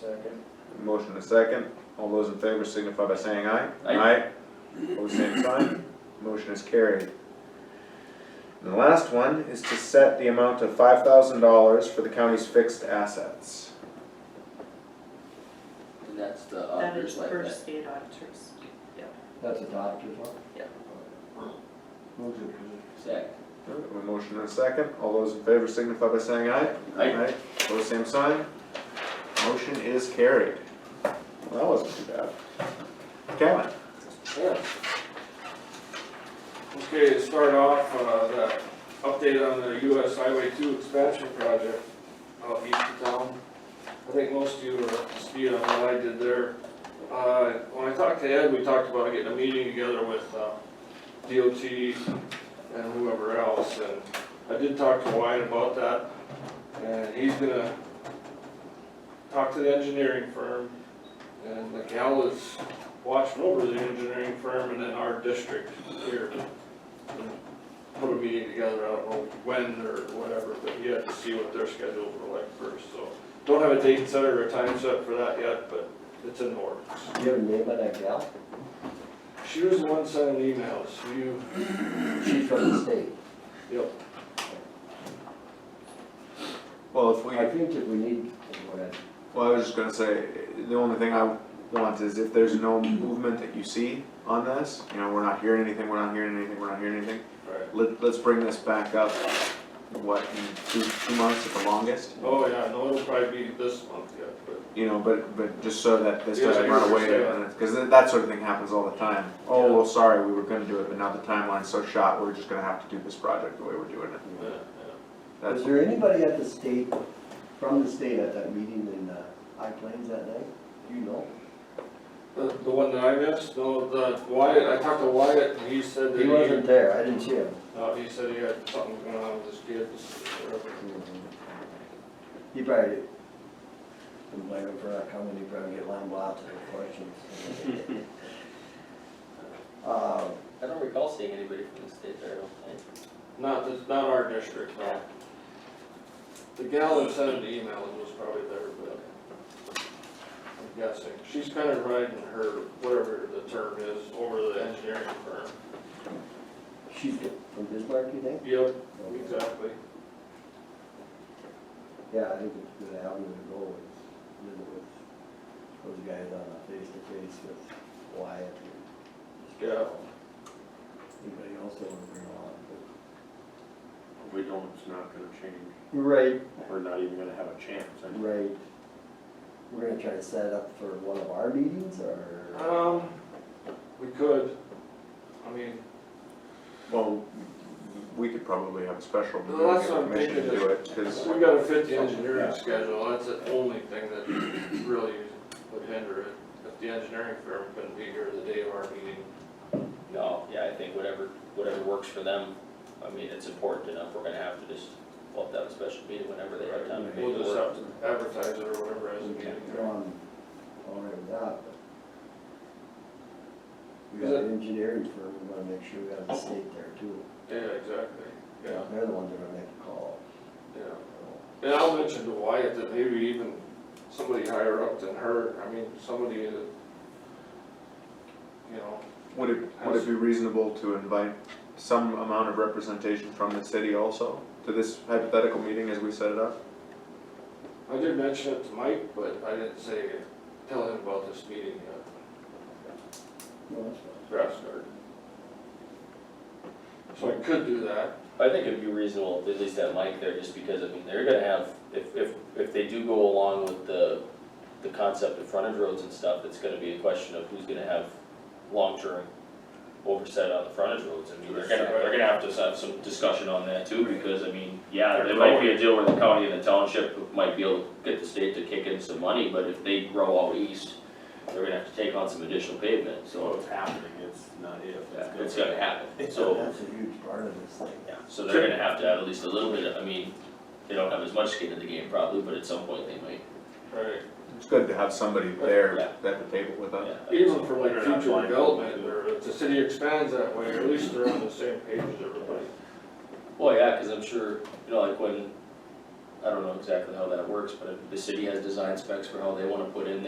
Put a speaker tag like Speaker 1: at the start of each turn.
Speaker 1: Second.
Speaker 2: Motion and a second. All those in favor signify by saying aye.
Speaker 3: Aye.
Speaker 2: Pose same sign. Motion is carried. And the last one is to set the amount of five thousand dollars for the county's fixed assets.
Speaker 3: And that's the
Speaker 4: That
Speaker 3: auditor's
Speaker 4: is
Speaker 3: like
Speaker 4: for
Speaker 3: that.
Speaker 4: state auditors.
Speaker 1: That's a doctor's one?
Speaker 4: Yeah.
Speaker 1: Move to approve.
Speaker 3: Second.
Speaker 2: Alright, we have A motion and a second. All those in favor signify by saying aye.
Speaker 3: Aye.
Speaker 2: Pose same sign. Motion is carried. Well, that wasn't too bad. Kevin?
Speaker 3: Yeah.
Speaker 5: Okay, to start off, uh, the update on the US Highway two expansion project out east of town. I think most of you are up to speed on what I did there. Uh, when I talked to Ed, we talked about getting a meeting together with, uh, DOT and whoever else, and I did talk to Wyatt about that. And he's gonna talk to the engineering firm, and the gal is watching over the engineering firm and then our district here. Put a meeting together, I don't know when or whatever, but you have to see what their schedules were like first, so. Don't have a date set or a time set for that yet, but it's in the works.
Speaker 1: Do you have a name on that gal?
Speaker 5: She was the one sending emails, you,
Speaker 1: She's from the state.
Speaker 5: yep,
Speaker 2: Well, if
Speaker 6: Oh,
Speaker 2: we.
Speaker 1: I think that we need, go ahead.
Speaker 2: Well, I was just gonna say, the only thing I want is if there's no movement that you see on this, you know, we're not hearing anything, we're not hearing anything, we're not hearing anything.
Speaker 5: right.
Speaker 2: Let, let's bring this back up, what, in two, two months at the longest?
Speaker 5: Oh, yeah, no, it'll probably be this month yet, but
Speaker 2: You know, but, but just so that this
Speaker 5: Yeah, I
Speaker 2: doesn't
Speaker 5: hear
Speaker 2: run
Speaker 5: what
Speaker 2: away,
Speaker 5: you're saying.
Speaker 2: and it's- cause that, that sort of thing happens all the time. Oh,
Speaker 5: Yeah.
Speaker 2: well, sorry, we were gonna do it, but now the timeline's so shot, we're just gonna have to do this project the way we're doing it.
Speaker 5: Yeah,
Speaker 2: That's,
Speaker 6: Was there anybody at the state, from the state at that meeting in uh, High Plains that night? Do you know?
Speaker 5: yeah. The, the one that I missed, no, the Wyatt, I talked to Wyatt and he said that
Speaker 6: He
Speaker 5: he,
Speaker 6: wasn't there, I didn't see him.
Speaker 5: uh, he said he had something going on with his kids or whatever.
Speaker 6: He probably, didn't blame him for not coming, he probably get lamb blasted with questions. Uh,
Speaker 3: I don't recall seeing anybody from the state there, I don't think.
Speaker 5: Not, this- not our district, no. The gal that sent an email was probably there, but I'm guessing. She's kind of riding her, whatever the term is, over the engineering firm.
Speaker 6: She's from Bismarck, you think?
Speaker 5: Yep, exactly.
Speaker 6: Yeah, I think it's a good avenue to go with, visit with those guys on a face-to-face with Wyatt. and-
Speaker 5: Yeah.
Speaker 6: Anybody else that would bring along?
Speaker 7: We don't, it's not gonna change,
Speaker 6: Right,
Speaker 7: we're not even gonna have a chance. And
Speaker 6: right. We're gonna try to set it up for one of our meetings or?
Speaker 5: Um, we could, I mean,
Speaker 2: well, we could probably have a special, we
Speaker 5: Well,
Speaker 2: don't
Speaker 5: that's
Speaker 2: get
Speaker 5: what I'm
Speaker 2: permission to
Speaker 5: thinking,
Speaker 2: do it, cause,
Speaker 5: we gotta fit the engineering schedule, that's the only thing that really would hinder it. If the engineering firm couldn't be here the day of our meeting,
Speaker 3: No, yeah, I think whatever, whatever works for them, I mean, it's important enough, we're gonna have to just, we'll have to have a special meeting whenever they have time to make
Speaker 5: we'll
Speaker 3: it
Speaker 5: just
Speaker 3: work.
Speaker 5: have to advertise it or whatever as a meeting.
Speaker 6: Go on, all right with that, but. We got an engineering firm, we wanna make sure we have the state there too.
Speaker 5: Yeah, exactly, yeah,
Speaker 6: They're the ones that are gonna make the call.
Speaker 5: yeah. And I'll mention to Wyatt that maybe even somebody higher up than her, I mean, somebody that, you know,
Speaker 2: would it, would it be reasonable to invite some amount of representation from the city also to this hypothetical meeting as we set it up?
Speaker 5: I did mention it to Mike, but I didn't say, tell him about this meeting at
Speaker 6: No, that's fine.
Speaker 5: Grass Garden. So I could do that,
Speaker 3: I think it'd be reasonable, to at least have Mike there, just because, I mean, they're gonna have, if, if, if they do go along with the, the concept of frontage roads and stuff, it's gonna be a question of who's gonna have long-term oversight on the frontage roads, I mean, they're gonna, they're gonna have to have some discussion on that too, because, I mean, yeah, there might be a deal where the county and the township might be able to get the state to kick in some money, but if they grow out east, they're gonna have to take on some additional pavement,
Speaker 7: So
Speaker 3: so,
Speaker 7: it's happening, it's not if,
Speaker 3: yeah,
Speaker 7: it's
Speaker 3: it's
Speaker 7: gonna.
Speaker 3: gonna happen, so.
Speaker 6: That's a huge part of this thing.
Speaker 3: Yeah, so they're gonna have to have at least a little bit, of- I mean, they don't have as much skin in the game probably, but at some point they might,
Speaker 5: right,
Speaker 2: It's good to have somebody there
Speaker 3: Yeah.
Speaker 2: at the table with us.
Speaker 3: yeah.
Speaker 5: even for like
Speaker 7: They're not
Speaker 5: future
Speaker 7: blind.
Speaker 5: development, or if the city expands that way, at least they're on the same page as everybody.
Speaker 3: Well, yeah, cause I'm sure, you know, like when I don't know exactly how that works, but the city has design specs for how they wanna put in there.